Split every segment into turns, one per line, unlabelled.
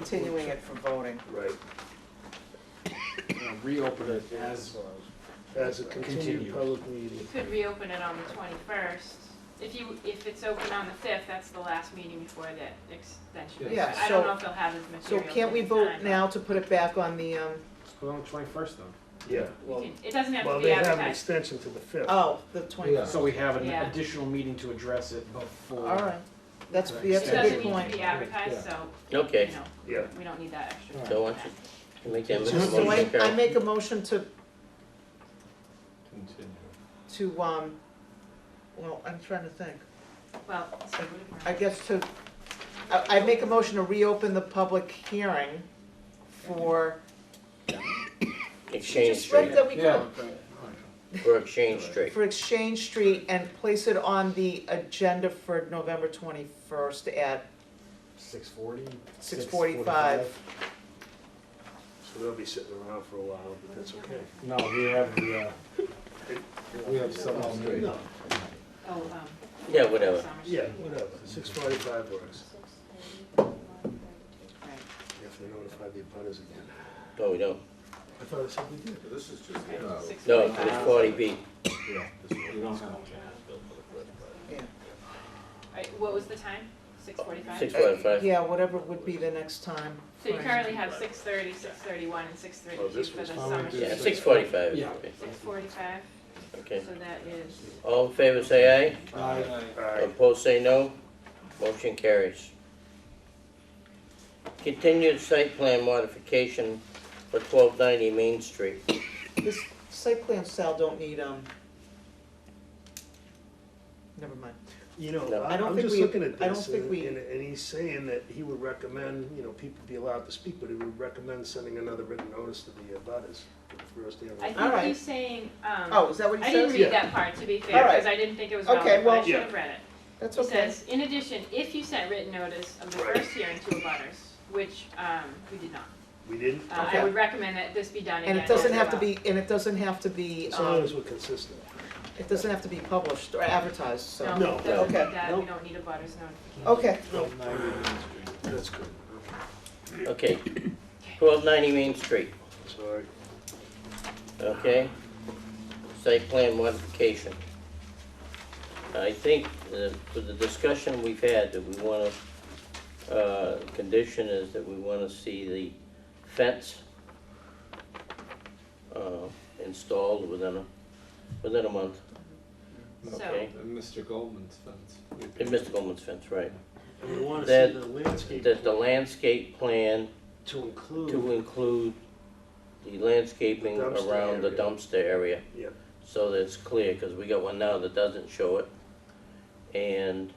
continuing it for voting.
Right,
you know, reopen it as,
as a
Continue.
continued public meeting.
You could reopen it on the 21st. If you, if it's open on the 5th, that's the last meeting before the extension.
Yeah,
I don't
so-
know if they'll have as
So
material.
can't we
this
vote
time.
now to put it back on the, um,
put on the twenty-first then.
Yeah,
You
well,
can- It doesn't have
well,
to be
they have an
advertised.
extension to the fifth.
oh, the twenty?
Yeah.
So we have an
Yeah.
additional meeting to address it before.
All right, that's,
Right.
that's
It
a good
doesn't need to
point.
be advertised, so, you
Okay,
know,
Yeah,
we don't need that extra.
so why don't you you make that motion,
So I, I
Carol?
make a motion to,
Continue.
to, um, well, I'm trying to think.
Well, so
I guess to, I, I make a motion to reopen the public hearing for,
Exchange
just read
Street,
that we
Yeah.
could,
for Exchange Street.
for Exchange Street and place it on the agenda for November twenty-first at uh,
Six forty?
six forty-five.
so they'll be sitting around for a while, but that's okay.
No, we have the, uh, we have some on the-
No,
Oh, um.
Yeah, whatever.
Summer
yeah,
Street.
whatever, six forty-five works,
Right.
if they notify the abutters again.
Oh, we don't,
I thought I said we did.
This is just,
Okay,
no,
six
no,
forty-five.
it's forty B.
You don't have.
Right, What was the time? 6:45?
Six forty-five.
Yeah, whatever would be the next time.
So you
Right.
currently have 6:30, 6:31, and 6:32
Oh,
for the
this was
summer.
fine.
Yeah,
street.
six forty-five.
Yeah.
6:45,
Okay.
so that is,
All in favor, say
Uh,
All right.
aye.
Um,
Opposed, say no. Motion carries. Continued site plan modification for twelve ninety Main Street.
This site plan Sal don't need, um, never mind.
You know,
No.
I-
I don't
I'm
think
just
we-
looking at
I don't
this,
think
and,
we-
and and he's saying that he would recommend, you know, people be allowed to speak, but he would recommend sending another written notice to the abutters for the first day of.
I
the-
All
think
right.
he's saying,
Oh,
um,
is that what he
I
says?
didn't
Yeah.
read that part, to be
All
fair,
right.
because I didn't think it was
Okay,
relevant, but
well-
I should
Yeah.
have read it.
That's
He
okay.
says, in addition, if you sent written notice of the
Right.
first hearing to abutters, which um, we did not,
We didn't,
uh,
Okay.
I would recommend that this be done again.
And it doesn't
as
have to
well.
be, and it doesn't have to be,
as long
um,
as we're consistent.
it doesn't have to be published or advertised, so.
No,
No, it doesn't
okay,
need that, we
no.
don't need abutters notification.
Okay,
No,
Ninety.
that's good,
Okay, twelve ninety Main Street,
sorry.
okay? Site plan modification. I think uh, for the discussion we've had, that we wanna, uh, condition is that we wanna see the fence uh, installed within a, within a month,
So,
okay?
and Mr. Goldman's fence. We
And Mr. Goldman's fence, right?
And we wanna
That-
see the landscape
That the landscape plan
to
to
include,
include the landscaping
Dumpster
around the
area.
dumpster area.
yeah,
so that it's clear, because we got one now that doesn't show it. And,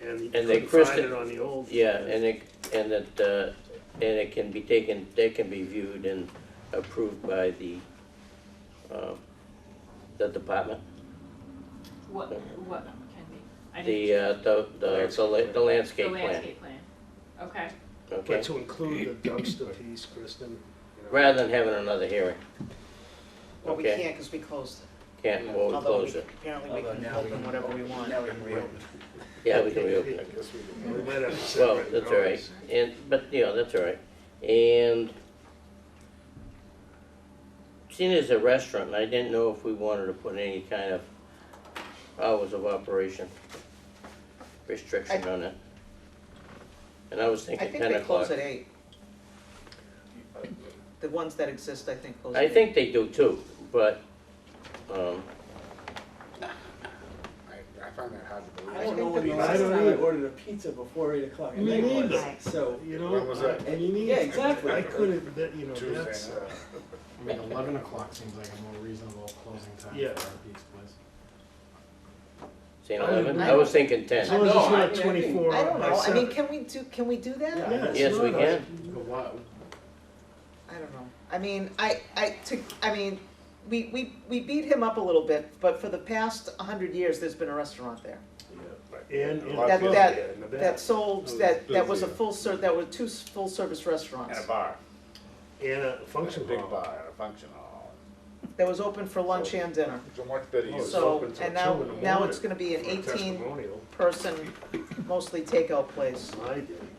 and you
And
couldn't
they
find
christen-
it on the old.
yeah, and it, and that, uh, and it can be taken, they can be viewed and approved by the, um, the department,
what, what can be? I
the,
didn't-
uh, the, the, the la- the
The
landscape plan,
landscape plan, okay.
okay?
But to include the dumpster piece, Kristen, you know.
Rather than having another hearing,
well, we
Okay.
can't because we closed it.
can't, well, we
Although we,
close it,
apparently we can open whatever we want.
yeah, we can reopen it.
I guess we can- we might have to set
Well,
written
that's all right,
notice.
and, but, you know, that's all right, and seeing as a restaurant, I didn't know if we wanted to put any kind of hours of operation restriction on it. And I was
I
thinking
think
ten
they close
o'clock.
at eight. The ones that exist, I think, close at
I
eight.
think they do too, but, um,
I, I find that hard to believe.
I
I
don't know
think
when
the
the
last
last
time
time
I
I ordered a pizza before eight o'clock at
Me
night was,
neither.
so.
You know.
When was that?
And you need. Yeah, exactly.
I couldn't, that, you know,
Tuesday
that's,
night.
uh,
I mean, eleven o'clock seems like a more reasonable closing time for
Yeah.
a pizza place.
seeing
I
eleven,
mean,
I was thinking
as long as
ten.
No,
it's
I- I
not
think-
twenty-four
I don't
by
know, I mean,
seven.
can we do, can we do that?
Yeah.
Yeah, it's
Yes, we
not.
can,
But why,
I don't know. I mean, I, I, to, I mean, we, we, we beat him up a little bit, but for the past hundred years, there's been a restaurant there.
And, and.
That-
above,
that-
yeah, and the
That
back.
sold,
was
that, that was a
busy.
full ser, that were two s- full-service restaurants.
And a bar.
And a
Function
function
big
hall.
bar, and a function hall.
that was open for lunch and dinner.
It's a much better
Oh, it's
use.
So,
open till
and now-
two in the
now it's
morning
gonna be an
for a
18
Testimonial,
Person, mostly takeout place.
my day.